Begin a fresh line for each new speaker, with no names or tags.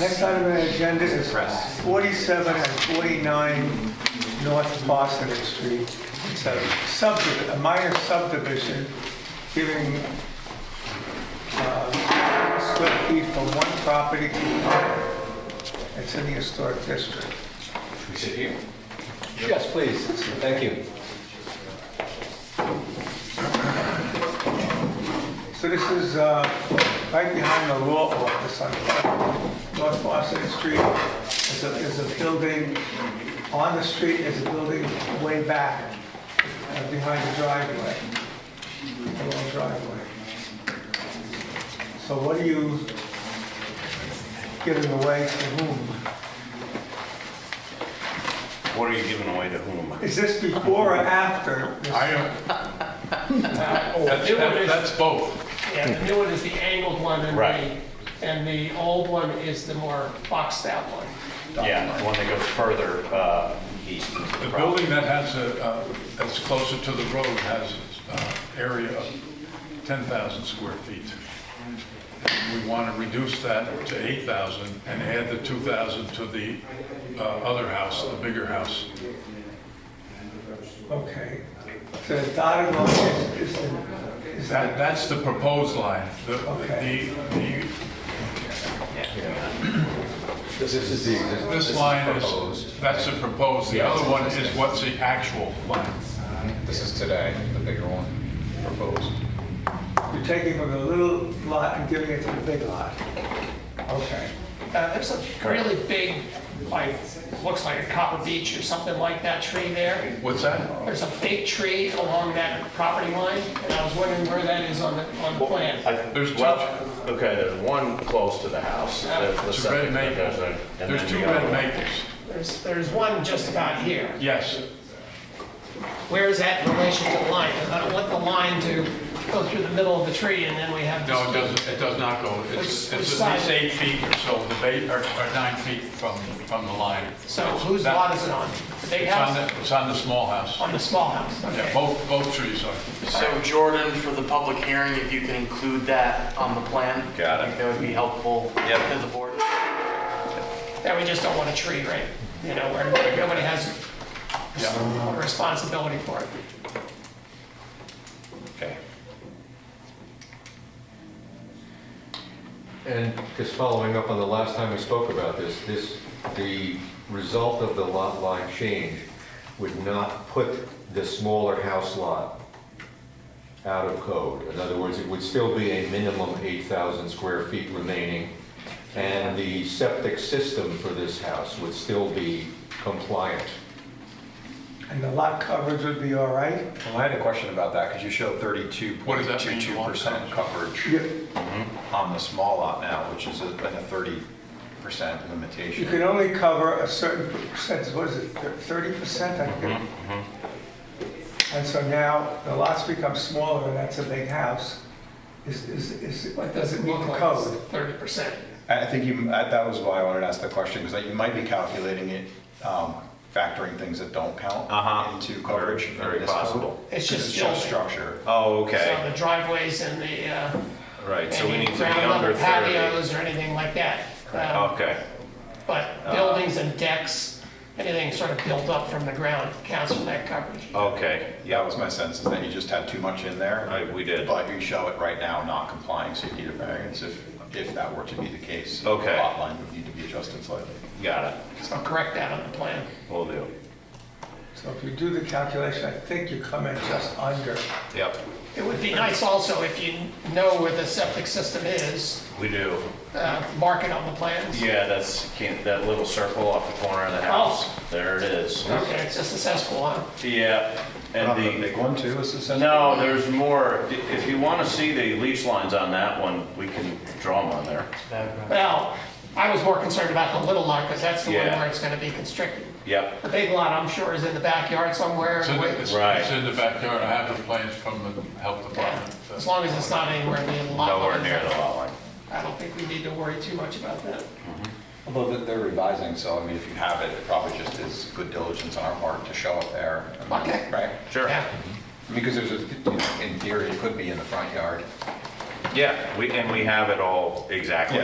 Next item on the agenda is
Suppress.
47 and 49 North Boston Street. It's a subdivision, a minor subdivision, giving uh, square feet from one property to another. It's in the historic district.
We sit here? Yes, please. Thank you.
So this is uh, right behind the law office on North Boston Street. There's a, there's a building on the street, there's a building way back uh, behind the driveway, the long driveway. So what are you giving away to whom?
What are you giving away to whom?
Is this before or after? this?
I am. That's,
It was-
that's both.
Yeah, the new one Uh, is the angled one, and
Right.
the, and the old one is the more boxed out one.
Yeah, the one that goes further uh, east. into
The
property.
building that has a, uh, that's closer to the road has uh area of 10,000 square feet. And We want to reduce that to 8,000 and add the 2,000 to the uh, other house, the bigger house.
Okay. So the dotted line is, is the- is
That,
that,
that's the proposed line. The,
Okay.
the, the-
This is the existing.
this line is, that's the proposed, the other one is what's the actual line.
This is today, the bigger one proposed.
you're taking from the little lot and giving it to the big lot? Okay.
Uh, There's a really big, like, looks like a copper beech or something like that tree there.
What's that?
There's a big tree along that property line, and I was wondering where that is on the, on the plan.
I-
There's two-
Well, okay, there's one close to the house. the- the
It's a
second,
red
there's a-
maple.
and
There's
then
two
the other
red
one.
maples.
There's, there's one just about here.
Yes.
Where is that in relation to the line? 'Cause I don't want the line to go through the middle of the tree, and then we have this.
No, it doesn't, it does not go, it's,
Which-
it's
which
at least
side?
eight feet or so, the bay, or, or nine feet from, from the line.
So whose
That-
lot is it on? The big
It's on
house?
the, it's on the small house.
On the small house, okay.
Yeah, both, both trees are.
So Jordan, for the public hearing, if you can include that on the plan.
Got it.
I think That would be helpful
Yep.
to the board.
that we just don't want a tree, right? You know, where nobody has
Yeah,
a responsibility for it.
Okay.
And just following up on the last time we spoke about this, this, the result of the lot line change would not put the smaller house lot out of code. In other words, it would still be a minimum 8,000 square feet remaining, and the septic system for this house would still be compliant.
And the lot coverage would be all right?
Well, I had a question about that, because you showed thirty-two
What
point
does that mean,
two-two percent
long-term?
coverage
You
on the small lot now, which is a- like a thirty percent
you can
limitation.
only cover a certain percentage, what is it, thirty percent? And so now the lots become smaller and that's a big house. Is, is, is,
What
does it meet
look
the
like?
code?
Thirty percent.
I I think you, I- that was why I wanted to ask the question, because you might be calculating it, um, factoring things that don't count
Uh-huh.
into coverage. in
Very
this code.
possible.
It's
'Cause
just
it's just
building.
structure.
Oh,
So
okay,
the driveways and the, uh,
right, so we
any
need to be
ground
under
level
30.
patios or anything like that. Uh,
Okay, Uh,
But buildings and decks, anything sort of built up from the ground counts for that coverage.
Oh. okay,
Yeah, that was my sense, is that you just had too much in there.
I- we did.
But you show it right now not complying, so you need a variance if, if that were to be the case.
Okay.
The Lot line would need to be adjusted slightly.
got it,
So correct that on the plan.
will do.
So if you do the calculation, I think you come in just under.
Yep,
It would be nice also if you know where the septic system is,
we do.
uh, mark it on the plans.
Yeah, that's, can't- that little circle off the corner of the house,
Oh.
there it is.
Okay, it's just a cesspool, huh?
Yeah,
Not
and
the
the,
big one too, is this?
No, there's more. If you want to see the leash lines on that one, we can draw them on there.
Well, I was more concerned about the little lot, because that's the one
Yeah.
where it's gonna be constricted.
Yep,
The big lot, I'm sure, is in the backyard somewhere.
it's in, the- it's
Right.
it's in the backyard, I have the plans from the health
Yeah,
department.
As long as it's not anywhere near the lot.
nowhere
line.
near the lot line.
I don't think we need to worry too much about that.
Although that they're revising, so I mean, if you have it, it probably just is good diligence on our part to show it there.
Okay.
Right?
Sure.
Yeah.
Because there's a, you know, in theory, it could be in the front yard.
Yeah, we, and we have it all exactly